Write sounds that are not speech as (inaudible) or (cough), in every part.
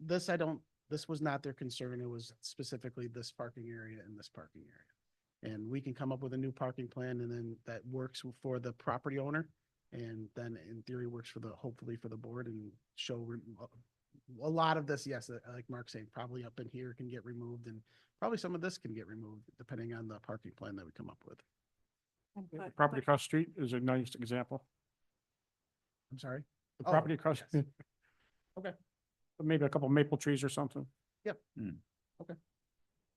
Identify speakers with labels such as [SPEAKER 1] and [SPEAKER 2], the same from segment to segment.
[SPEAKER 1] this I don't, this was not their concern. It was specifically this parking area and this parking area. And we can come up with a new parking plan and then that works for the property owner. And then in theory works for the, hopefully for the board and show re- a lot of this, yes, uh, like Mark saying, probably up in here can get removed and probably some of this can get removed depending on the parking plan that we come up with.
[SPEAKER 2] The
[SPEAKER 3] But-
[SPEAKER 2] Property
[SPEAKER 3] but-
[SPEAKER 2] across the street is a nice example.
[SPEAKER 1] I'm sorry.
[SPEAKER 2] The
[SPEAKER 1] Oh,
[SPEAKER 2] property across. (laughs)
[SPEAKER 1] yes. Okay.
[SPEAKER 2] Maybe a couple maple trees or something.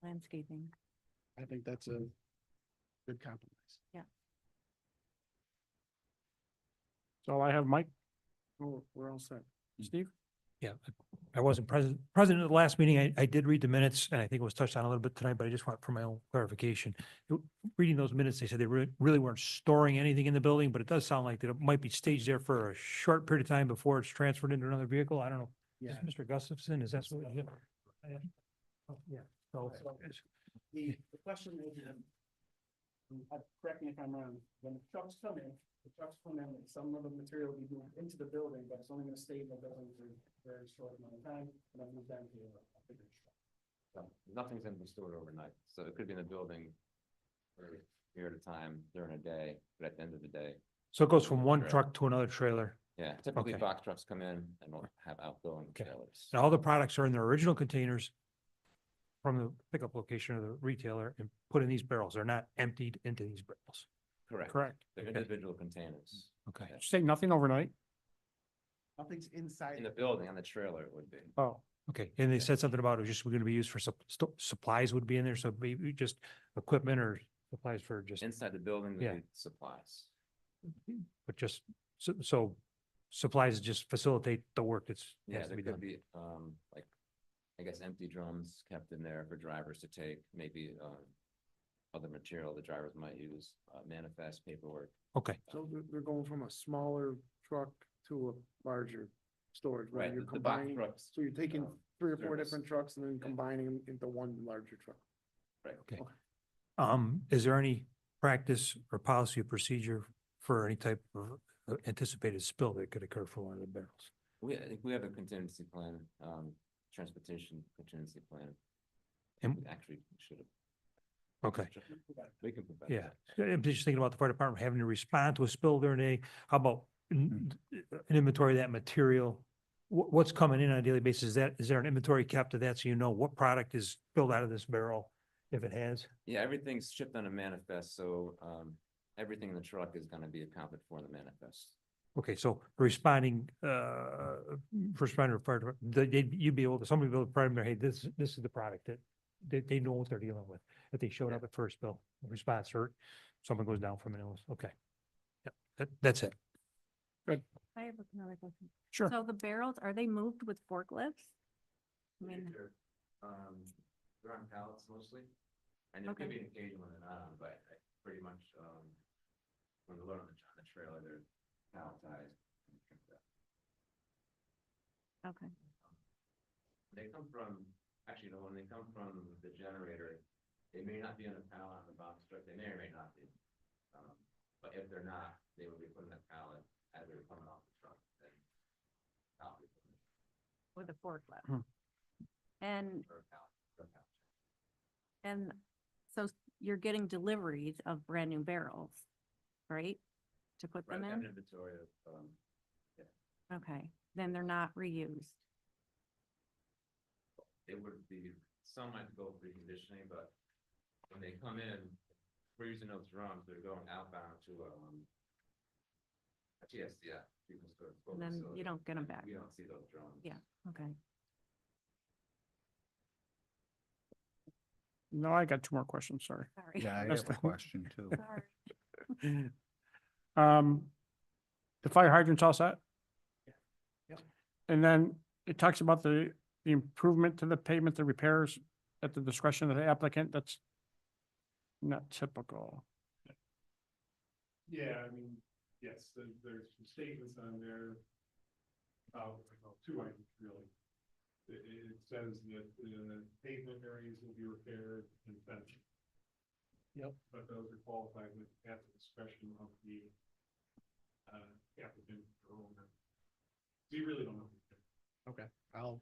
[SPEAKER 3] Landscaping.
[SPEAKER 1] I think that's a good compromise.
[SPEAKER 2] So I have Mike,
[SPEAKER 1] Oh, we're all set.
[SPEAKER 2] Steve.
[SPEAKER 4] Hmm. Yeah, I- I wasn't present, present at the last meeting. I, I did read the minutes and I think it was touched on a little bit tonight, but I just want for my own clarification. w- Reading those minutes, they said they really, really weren't storing anything in the building, but it does sound like that it might be staged there for a short period of time before it's transferred into another vehicle. I don't know. Is
[SPEAKER 1] Yeah.
[SPEAKER 4] Mr. Gustafson, is that what? it is? Yeah. Oh, Yeah, so it's-
[SPEAKER 1] The, the question is, um, and I- correct me if I'm wrong, when the trucks come in, the trucks come in, and some of the material will be moved into the building, but it's only gonna stay in the building for a very short amount of time, and then move down to a bigger truck.
[SPEAKER 5] So Nothing's gonna be stored overnight, so it could be in the building for a period of time during a day, but at the end of the day,
[SPEAKER 4] so it goes from one
[SPEAKER 5] Correct.
[SPEAKER 4] truck to another trailer.
[SPEAKER 5] yeah, typically
[SPEAKER 4] Okay.
[SPEAKER 5] box trucks come in and will have outgoing
[SPEAKER 4] Okay.
[SPEAKER 5] trailers.
[SPEAKER 4] And all the products are in their original containers from the pickup location of the retailer and put in these barrels. They're not emptied into these barrels.
[SPEAKER 5] Correct,
[SPEAKER 2] Correct.
[SPEAKER 5] they're
[SPEAKER 4] Okay.
[SPEAKER 5] individual containers.
[SPEAKER 4] Okay.
[SPEAKER 5] Yeah.
[SPEAKER 2] Say nothing overnight.
[SPEAKER 1] Nothing's inside.
[SPEAKER 5] In the building, on the trailer it would be.
[SPEAKER 2] Oh,
[SPEAKER 4] Okay, and they
[SPEAKER 5] Yeah.
[SPEAKER 4] said something about it was just going to be used for sup- sto- supplies would be in there, so maybe just equipment or supplies for just,
[SPEAKER 5] Inside the building would
[SPEAKER 4] Yeah.
[SPEAKER 5] be supplies.
[SPEAKER 4] but just, so, so supplies just facilitate the work that's,
[SPEAKER 5] Yeah,
[SPEAKER 4] has to
[SPEAKER 5] there
[SPEAKER 4] be
[SPEAKER 5] could
[SPEAKER 4] done.
[SPEAKER 5] be, um, like, I guess empty drums kept in there for drivers to take, maybe, um, other material the drivers might use, uh, manifest paperwork.
[SPEAKER 4] Okay,
[SPEAKER 6] So they're, they're going from a smaller truck to a larger storage, where
[SPEAKER 5] Right,
[SPEAKER 6] you're
[SPEAKER 5] the the box
[SPEAKER 6] combining,
[SPEAKER 5] trucks,
[SPEAKER 6] so you're taking
[SPEAKER 1] Uh,
[SPEAKER 5] um,
[SPEAKER 6] three or four
[SPEAKER 5] service.
[SPEAKER 6] different trucks and then combining them into one larger truck.
[SPEAKER 5] right.
[SPEAKER 4] okay. Um, is there any practice or policy or procedure for any type of uh, anticipated spill that could occur from one of the barrels?
[SPEAKER 5] We, I think we have a contingency plan, um, transportation contingency plan.
[SPEAKER 4] And-
[SPEAKER 5] We Actually, should have,
[SPEAKER 4] Okay.
[SPEAKER 5] we can provide.
[SPEAKER 4] Yeah,
[SPEAKER 5] that.
[SPEAKER 4] uh, I'm just thinking about the fire department having to respond to a spill during the day. How about n- uh, an inventory of that material? Wh- what's coming in on a daily basis? Is that, is there an inventory kept of that so you know what product is spilled out of this barrel? If it has,
[SPEAKER 5] Yeah, everything's shipped on a manifest, so, um, everything in the truck is gonna be accounted for in the manifest.
[SPEAKER 4] okay, so responding, uh, first responder, fire department, they, they'd- you'd be able to, somebody be able to primary, hey, this, this is the product that they, they know what they're dealing with. If they showed up at first bill, response hurt, someone goes down from an illness, okay. Yep, that, that's it.
[SPEAKER 3] I have another question.
[SPEAKER 2] Sure.
[SPEAKER 3] So the barrels, are they moved with forklifts? I mean,
[SPEAKER 5] Um, they're on pallets mostly, and there
[SPEAKER 3] Okay.
[SPEAKER 5] could be an occasion when they're not on, but I pretty much, um, when they're loaded on the- on the trailer, they're palletized.
[SPEAKER 3] okay,
[SPEAKER 5] They come from, actually, no, when they come from the generator, they may not be on a pallet on the box truck, they may or may not be. Um, But if they're not, they would be put in a pallet as they're coming off the truck, then. not be put in
[SPEAKER 3] with a
[SPEAKER 2] Hmm.
[SPEAKER 3] forklift. And,
[SPEAKER 5] a pallet, or a pallet.
[SPEAKER 3] and so you're getting deliveries of brand new barrels, right? To put
[SPEAKER 5] Right,
[SPEAKER 3] them
[SPEAKER 5] we have an
[SPEAKER 3] in?
[SPEAKER 5] inventory of, um,
[SPEAKER 3] Okay, then they're not reused.
[SPEAKER 5] it would be, some might go for reconditioning, but when they come in, we're using those drums, they're going outbound to, um, a TSDF. People's Code
[SPEAKER 3] And then
[SPEAKER 5] facility.
[SPEAKER 3] you don't get them back.
[SPEAKER 5] We don't see those drums.
[SPEAKER 3] Yeah. Okay.
[SPEAKER 2] No, I got two more questions, sorry.
[SPEAKER 3] Sorry.
[SPEAKER 7] Yeah, I
[SPEAKER 2] That's
[SPEAKER 7] have a
[SPEAKER 2] the- (laughs)
[SPEAKER 7] question too.
[SPEAKER 3] Sorry.
[SPEAKER 2] Um, the fire hydrants all set?
[SPEAKER 1] Yep.
[SPEAKER 2] And then it talks about the, the improvement to the pavement, the repairs at the discretion of the applicant, that's not typical.
[SPEAKER 8] Yeah, I mean, yes, there, there's some statements on there. About, well, two items really. It, it says that the pavement areas will be repaired and fenced.
[SPEAKER 1] Yep.
[SPEAKER 8] But those are qualified with at the discretion of the, uh, applicant or owner. We really don't know.
[SPEAKER 1] Okay, I'll